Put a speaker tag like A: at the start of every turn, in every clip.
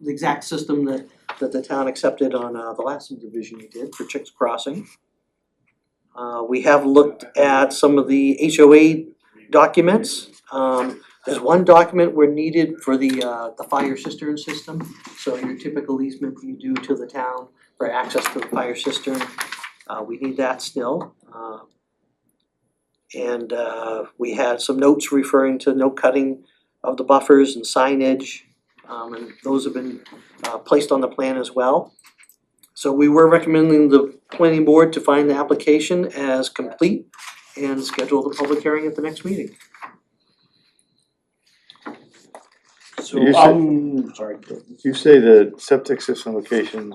A: the exact system that that the town accepted on uh the last subdivision we did for Chicks Crossing. Uh we have looked at some of the HOA documents. Um there's one document we're needed for the uh the fire cistern system. So your typical easement you do to the town for access to the fire cistern, uh we need that still. Uh, And uh we had some notes referring to no cutting of the buffers and signage. Um and those have been uh placed on the plan as well. So we were recommending the planning board to find the application as complete and schedule the public hearing at the next meeting.
B: You
C: So
B: said-
D: um,
C: I'm sorry,
B: You say the septic system locations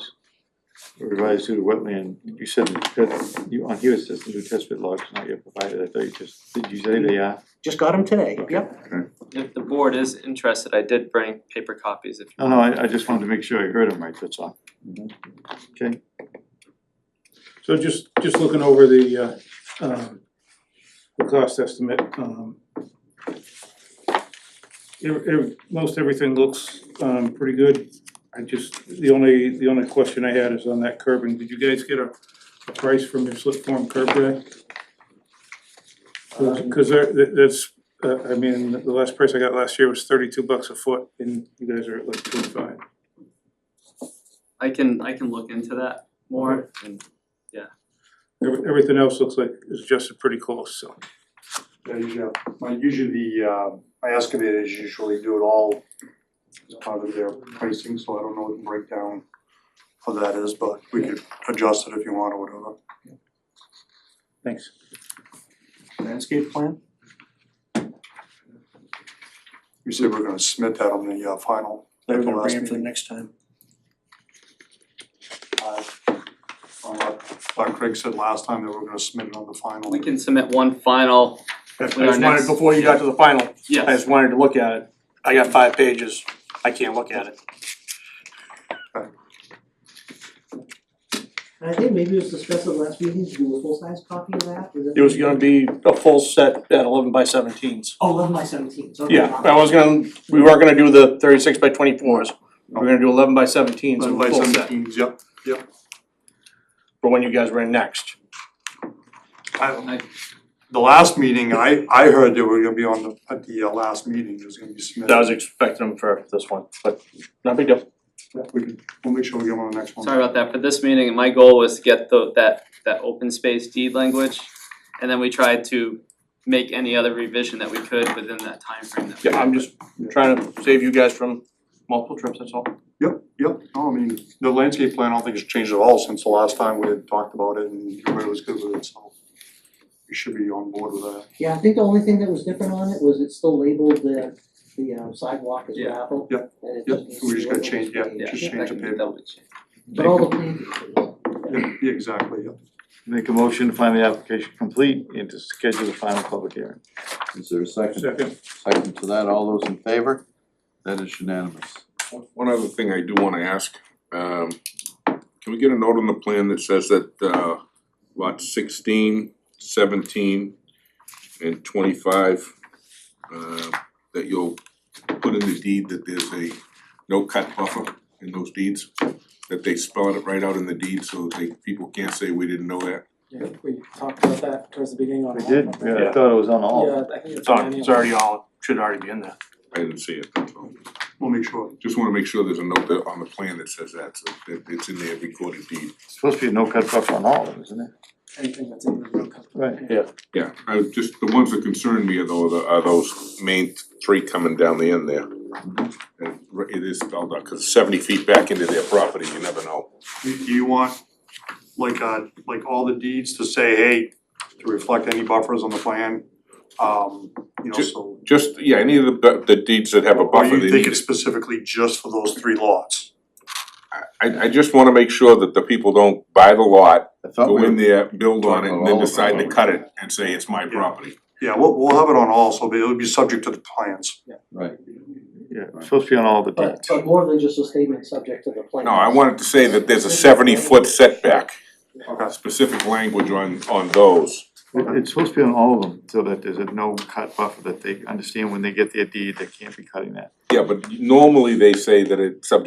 B: were revised due to wetland, you said that you, on here it says the new test pit logs not yet provided, I thought you just, did you say they are?
A: Just got them today, yep,
E: If the board is interested, I did bring paper copies if you
B: No, no, I I just wanted to make sure I heard them right, that's all.
D: Mm-hmm.
B: Okay,
C: so just, just looking over the, uh, um, the cost estimate, um, ev- ev- most everything looks, um, pretty good. I just, the only, the only question I had is on that curbing. Did you guys get a, a price from your slip form curb guy? Cause,
F: Um,
C: 'cause there- that, that's, uh, I mean, the last price I got last year was thirty-two bucks a foot and you guys are at like twenty-five.
E: I can I can look into that more and
C: Every- Everything else looks like it's adjusted pretty close, so.
F: There you go. My usually the uh my excavators usually do it all as part of their pricing, so I don't know what the breakdown of that is, but we could adjust it if you want or whatever.
C: Thanks.
F: Landscape plan? We said we're gonna submit that on the uh final.
D: They're
F: at the
D: gonna
F: last
D: bring it for the
F: meeting.
D: next time.
F: Uh, on what Clark Craig said last time that we're gonna submit it on the final.
E: we can submit one final,
D: I
E: With our
D: just
E: next-
D: wanted, before you got to the final, I
E: yes,
D: just wanted to look at it. I got five pages. I can't look at it.
A: and I think maybe it was discussed at last meeting to do a full-size copy of that, is
D: It was gonna be a full set at eleven by seventeens.
A: Oh, eleven by seventeens, okay.
D: Yeah, I was gonna, we weren't gonna do the thirty-six by twenty-fours. We were gonna do eleven by seventeens in a
F: By
D: full set
F: seventeens, yep.
D: for when you guys were in next.
F: I- The last meeting, I I heard they were gonna be on the at the uh, last meeting, it was gonna be submitted.
D: I was expecting them for this one, but not a big deal.
F: Yeah, we can, we'll make sure we get one on the next one.
E: sorry about that, for this meeting, my goal was to get the that that open space deed language. And then we tried to make any other revision that we could within that timeframe that we.
D: Yeah, I'm just trying to save you guys from multiple trips, that's all.
F: Yep, yep, no, I mean, the landscape plan, I don't think it's changed at all since the last time we had talked about it and everybody was good with it, so. We should be on board with that.
A: Yeah, I think the only thing that was different on it was it's still labeled the the um, sidewalk as
E: Yeah.
A: gravel.
F: Yeah.
A: and it
F: Yeah.
A: needs to
F: We
A: be
F: just gotta
A: labeled
F: change-
A: as
F: yeah,
A: paved.
E: Yeah,
F: just
E: I
F: change the
E: can
F: paper.
E: double check.
A: But all the plantings.
F: Yeah, yeah, exactly, yeah.
B: make a motion to find the application complete and to schedule the final public hearing.
G: Is there a second?
C: Second,
G: Second to that, all those in favor? That is unanimous.
H: One other thing I do wanna ask, um, can we get a note on the plan that says that, uh, lot 16, 17, and twenty-five, uh, that you'll put in the deed that there's a no-cut buffer in those deeds? That they spell it right out in the deed so they, people can't say we didn't know that?
I: Yeah, we talked about that towards the beginning on.
B: We
I: all
B: did,
I: of them.
B: yeah, I thought it was on all.
I: Yeah, I think it's.
D: It's on, it's already all, should already be in there.
H: I didn't see it, that's all.
F: We'll make sure.
H: Just wanna make sure there's a note there on the plan that says that, so that it's in their recorded deed.
B: It's supposed to be a no cut buffer on all of them, isn't it?
I: Anything that's in the road company.
B: Right.
H: Yeah, I was just, the ones that concern me are those, are those main three coming down the end there. And r- Mm-hmm. it is spelled out, cause seventy feet back into their property, you never know.
F: Do do you want, like, uh, like all the deeds to say, hey, to reflect any buffers on the plan? Um, you know,
H: Ju-
F: so,
H: Just, yeah, any of the bu- the deeds that have a
F: or
H: buffer,
F: Oh, you
H: they
F: think
H: need,
F: it's specifically just for those three lots?
H: I I just wanna make sure that the people don't buy the
G: I
H: lot,
F: Oh,
G: thought
H: go
G: we,
H: in there, build on it, and then
G: Well,
H: decide to
G: well,
H: cut it and say it's my
F: Yeah.
H: property.
F: Yeah, we'll, we'll have it on all, so it'll be subject to the plans.
G: right,
B: Yeah, it's supposed to be on all the deeds.
A: But but more than just a statement subject to the plan.
H: No, I wanted to say that there's a seventy foot setback,
F: Okay.
H: specific language on on those.
B: It- It's supposed to be on all of them, so that there's a no cut buffer, that they understand when they get their deed, they can't be cutting that.
H: Yeah, but normally they say that it's subject